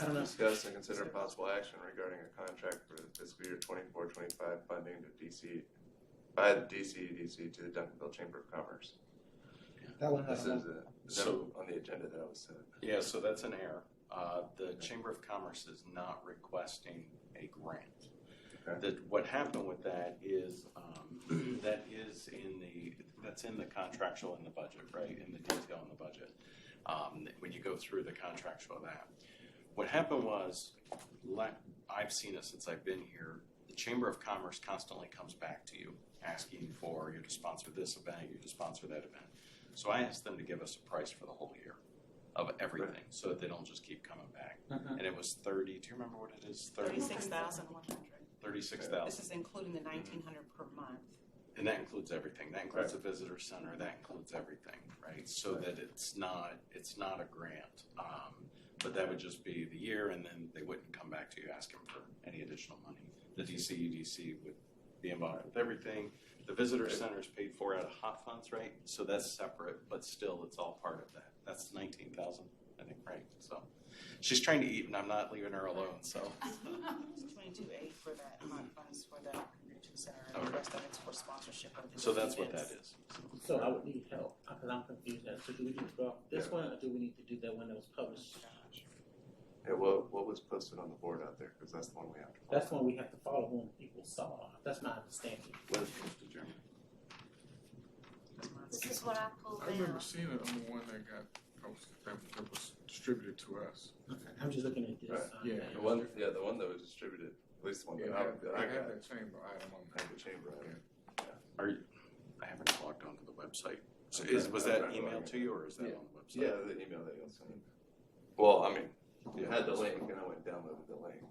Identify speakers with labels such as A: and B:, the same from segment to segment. A: I don't know.
B: Discuss and consider possible action regarding a contract for the fiscal year 24-25 funding to DC, by the DCEDC to the Duncanville Chamber of Commerce.
A: That one,
B: This
A: I
B: is
A: don't know.
B: a
C: So-
B: note on the agenda that I was uh, said.
C: Yeah, so that's an error. Uh, The Chamber of Commerce is not requesting a grant.
B: Okay.
C: That, what happened with that is, um, that is in the, that's in the contractual in the budget, right? In the detail in the budget, um, when you go through the contractual of that. What happened was, like, I've seen it since I've been here, the Chamber of Commerce constantly comes back to you, asking for you to sponsor this event, you to sponsor that event. So I asked them to give us a price for the whole year of everything, so that they don't just keep coming back.
A: Mhm.
C: And it was thirty, do you remember what it is?
D: Thirty-six thousand one hundred.
C: Thirty-six
D: This
C: thousand,
D: is including the nineteen hundred per month.
C: and that includes everything, that includes the visitor center, that includes everything, right? So that it's not, it's not a grant, um, but that would just be the year, and then they wouldn't come back to you asking for any additional money. The DCEDC would be involved with everything, the visitor center is paid for out of hot funds, right? So that's separate, but still, it's all part of that, that's nineteen thousand, I think, right, so. She's trying to eat, and I'm not leaving her alone, so.
D: It's twenty-two eight for that month funds for the convention center and the
C: Okay.
D: rest of it's for sponsorship of the.
C: So that's what that
D: events.
C: is.
A: So I would need help, because I'm confused as to do we need to go off this
B: Yeah.
A: one, or do we need to do that one that was published?
B: Yeah, what, what was posted on the board out there, because that's the one we have to. follow.
A: That's one we have to follow when people saw, that's my understanding.
B: What is posted, Jeremy?
E: This is what I pulled
F: I remember
E: out.
F: seeing it on the one that got posted, that, that was distributed to us.
A: I'm just looking at this.
B: Right.
A: uh,
F: Yeah.
B: The one, yeah, the one that was distributed, at least the one that
F: I
B: I,
F: have,
B: that
F: I
B: I
F: have
B: got,
F: that chamber item on
B: I
F: there.
B: have the chamber. on it.
C: Are you, I haven't logged onto the website. So is, was that emailed to you or is that on the
B: Yeah,
C: website?
B: the email that you sent. Well, I mean, it
C: Yeah.
B: had the link and I went downloaded the link.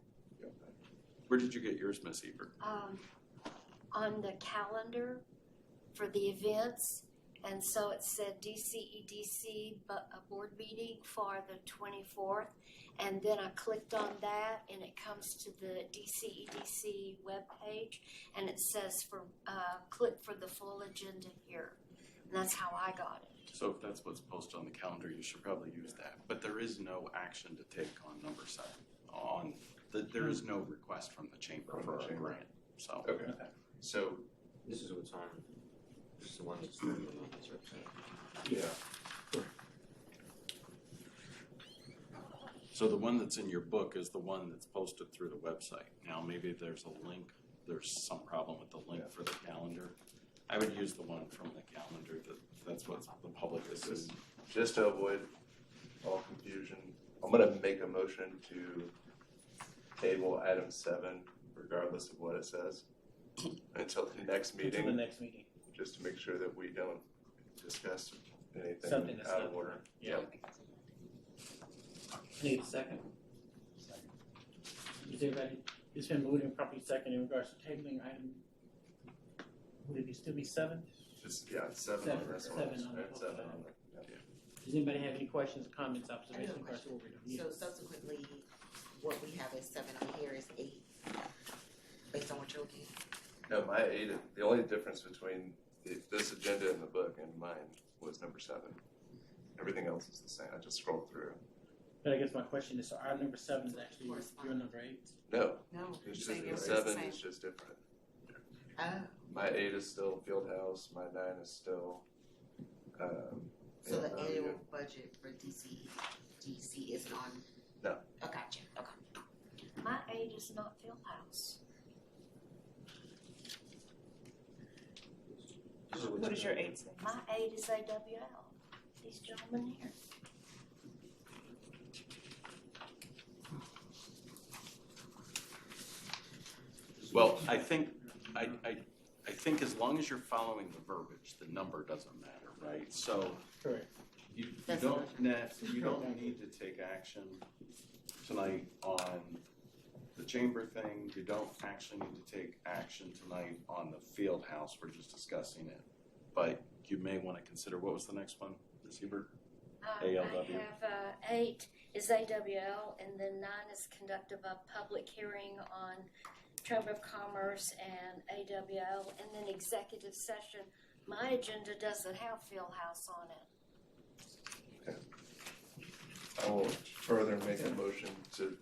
C: Where did you get yours, Miss Ebert?
E: Um, on the calendar for the events, and so it said DCEDC, but a board meeting for the twenty-fourth. And then I clicked on that, and it comes to the DCEDC webpage, and it says for, uh, click for the full agenda here. And that's how I got it.
C: So if that's what's posted on the calendar, you should probably use that. But there is no action to take on number seven. On, the, there is no request from the chamber
B: From the
C: for a
B: chamber.
C: grant, so.
B: Okay, so,
G: This is what's on. This is the one that's on the website.
B: yeah,
C: So the one that's in your book is the one that's posted through the website. Now, maybe there's a link, there's some problem with the link for the calendar. I would use the one from the calendar, that, that's what the public is seeing.
B: just to avoid all confusion, I'm gonna make a motion to table item seven regardless of what it says until the next
A: To the
B: meeting,
A: next meeting,
B: just to make sure that we don't discuss
A: something
B: anything
A: that's
B: out
A: not.
B: of order.
A: Yeah, I need a second. Is everybody, it's been moved and properly second in regards to tabling item, would it be still be seven?
B: Just, yeah, it's seven on
A: Seven,
B: this one.
A: seven on the
B: It's seven on the-
A: Does anybody have any questions, comments, observations?
H: I have a
A: regards to what we're doing?
H: So subsequently, what we have is seven on here is eight, based on what you're looking at.
B: No, my eight, the only difference between the- this agenda in the book and mine was number seven. Everything else is the same. I just scrolled through.
A: But I guess my question is, so our number seven is actually your number eight?
B: No,
H: No, you're
B: it's just
H: saying
B: the
H: yours is the
B: seven
H: same.
B: is just different.
H: Oh,
B: My eight is still field house. My nine is still. Um,
H: so
B: yeah,
H: the
B: uh,
H: annual budget for DC, DC isn't on?
B: No.
H: Oh, gotcha, okay.
E: My aid is not Field House.
D: What is your eight say?
E: My aid is AWL. These gentlemen here.
C: Well, I think, I, I, I think as long as you're following the verbiage, the number doesn't matter, right? So
A: Correct.
C: you, you
H: That's
C: don't, ne- you don't need to take action tonight on the chamber thing. You don't actually need to take action tonight on the field house. We're just discussing it. But you may want to consider, what was the next one, Ms. Hebert?
E: Um, I
C: ALW.
E: have uh, eight is AWL, and then nine is conduct of a public hearing on Chamber of Commerce and AWL, and then executive session. My agenda doesn't have Field House on it.
B: I will further make a motion to